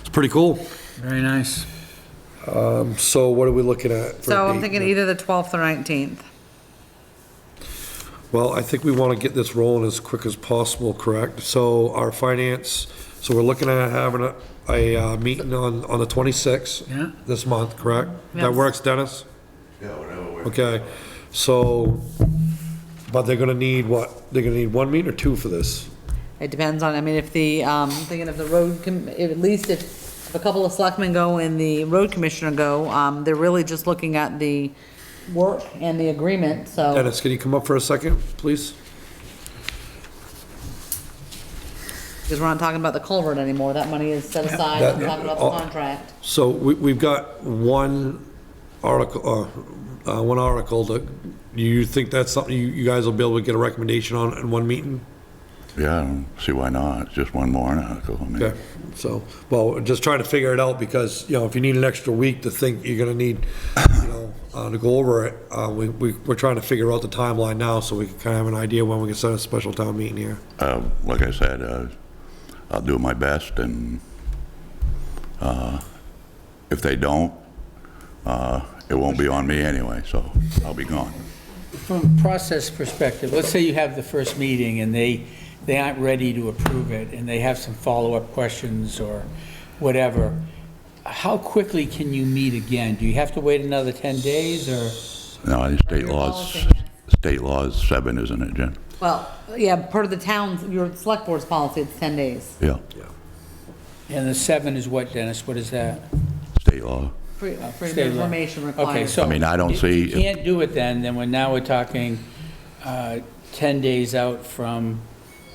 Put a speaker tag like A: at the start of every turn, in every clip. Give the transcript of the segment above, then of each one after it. A: It's pretty cool.
B: Very nice.
A: So what are we looking at? for a
C: So I'm
A: date?
C: thinking either the 12th or 19th.
A: Well, I think we want to get this rolling as quick as possible, correct? So our finance, so we're looking at having a, a uh, meeting on, on the 26th.
B: Yeah.
A: This month, correct? That
C: Yes.
A: works, Dennis?
D: Yeah, whatever works.
A: Okay, so, but they're gonna need what? They're gonna need one meeting or two for this?
C: It depends on, I mean, if the, um, thinking of the road, com- if- at least if if a couple of selectmen go and the road commissioner go, um, they're really just looking at the work and the agreement, so.
A: Dennis, can you come up for a second, please?
C: Because we're not talking about the culvert anymore, that money is set aside,
A: That-
C: we're talking about
A: oh.
C: the contract.
A: So we, we've got one article, uh, uh, one article that, you think that's something you, you guys will be able to get a recommendation on in one meeting?
D: Yeah, I don't see why not, it's just one more article, I mean.
A: Okay, so, well, we're just trying to figure it out because, you know, if you need an extra week to think, you're gonna need, you know, uh, to go over it. Uh, we, we, we're trying to figure out the timeline now so we can kind of have an idea when we can set a special town meeting here.
D: Uh, Like I said, uh, I'll do my best, and uh, if they don't, uh, it won't be on me anyway, so I'll be gone.
B: From a process perspective, let's say you have the first meeting and they, they aren't ready to approve it and they have some follow-up questions or whatever. How quickly can you meet again? Do you have to wait another 10 days or?
D: No, I think state
C: Your
D: laws,
C: policy,
D: state laws seven, isn't it, Jen?
C: Well, yeah, part of the town's, your select board's policy, it's 10 days.
D: Yeah,
B: And the seven is what, Dennis? What is that?
D: state law.
C: Free- Freedom
B: State
C: of
B: law.
C: information
B: Okay,
C: uh, required.
B: so.
D: I mean, I don't
B: if you
D: see-
B: can't do it then, then we're, now we're talking uh, 10 days out from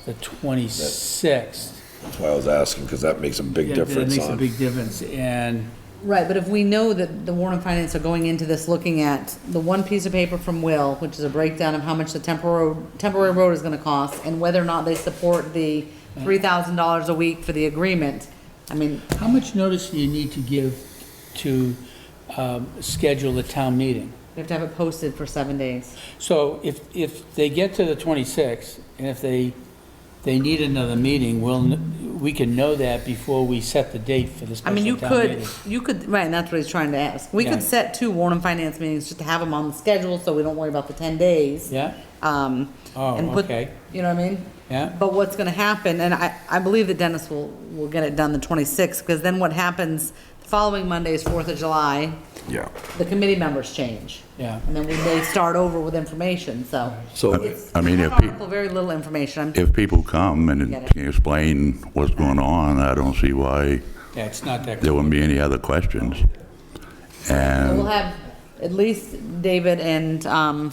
B: the 26th.
E: That's why I was asking, because that makes a big
B: Yeah, That
E: difference
B: makes a
E: on.
B: big difference. And
C: Right, but if we know that the Warren Finance are going into this looking at the one piece of paper from Will, which is a breakdown of how much the temporary, temporary road is gonna cost, and whether or not they support the three thousand dollars a week for the agreement, I mean,
B: how much notice do you need to give to um, schedule the town meeting?
C: we have to have it posted for seven days.
B: So if, if they get to the 26th, and if they, they need another meeting, we'll, kn- we can know that before we set the date for the
C: I
B: special
C: mean, you
B: town
C: could,
B: meeting.
C: you could, right, and that's what he's trying to ask. We
B: Yeah.
C: could set two Warren Finance meetings, just to have them on the schedule, so we don't worry about the ten days.
B: Yeah?
C: Um.
B: Oh,
C: and put-
B: okay.
C: You know what I mean?
B: Yeah.
C: But what's gonna happen, and I, I believe that Dennis will, will get it done the twenty-sixth, because then what happens, the following Monday is Fourth of July,
E: Yeah.
C: the committee members change.
B: Yeah.
C: And then we may start over with information, so.
A: So-
C: It's-
D: I mean,
C: it's
D: if
C: an
D: peo-
C: article, Very little information, I'm,
D: If people come and
C: Get it.
D: can explain what's going on, I don't see why
B: Yeah, it's not that.
D: there wouldn't be any other questions.
C: so we'll
D: And,
C: have at least David and, um,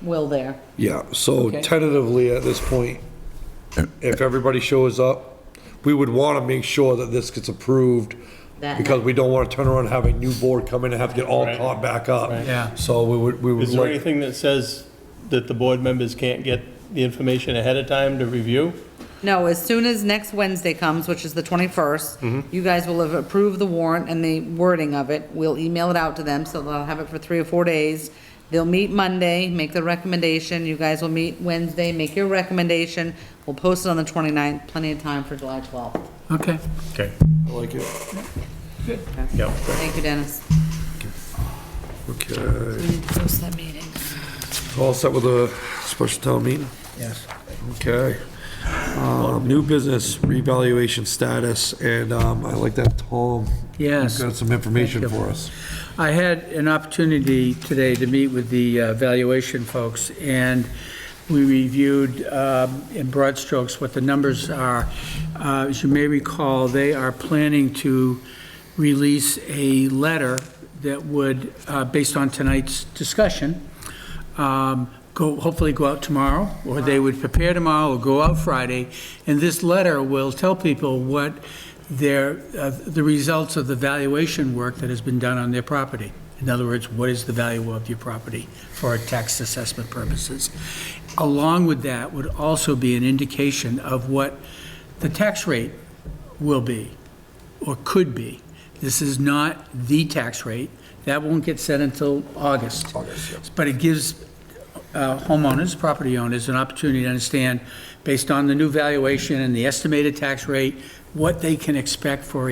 C: Will there.
A: Yeah, so
B: Okay.
A: tentatively at this point, if everybody shows up, we would want to make sure that this gets approved
C: That
A: because we don't want to turn around and have a new board come in and have to get all
F: Right.
A: caught back up.
B: Yeah.
A: So we would, we would
F: Is there
A: like,
F: anything that says that the board members can't get the information ahead of time to review?
C: No, as soon as next Wednesday comes, which is the 21st, you guys will have approved the warrant and the wording of it. We'll email it out to them, so they'll have it for three or four days. They'll meet Monday, make the recommendation. You guys will meet Wednesday, make your recommendation. We'll post it on the 29th, plenty of time for July 12th.
B: Okay.
F: Okay.
A: I like it.
F: Yeah.
C: Thank you, Dennis.
A: Okay,
C: We need to post that meeting.
A: all set with a special town meeting?
B: Yes.
A: Okay. Um, New business revaluation status, and um, I like that Tom.
B: Yes.
A: Got some information
B: Thank you.
A: for us.
B: I had an opportunity today to meet with the uh, valuation folks, and we reviewed um, in broad strokes what the numbers are. Uh, As you may recall, they are planning to release a letter that would, uh, based on tonight's discussion, um, go, hopefully go out tomorrow, or they would prepare tomorrow or go out Friday. And this letter will tell people what their, uh, the results of the valuation work that has been done on their property. In other words, what is the value of your property for tax assessment purposes? Along with that would also be an indication of what the tax rate will be or could be. This is not the tax rate. That won't get set until August. But it gives uh, homeowners, property owners, an opportunity to understand, based on the new valuation and the estimated tax rate, what they can expect for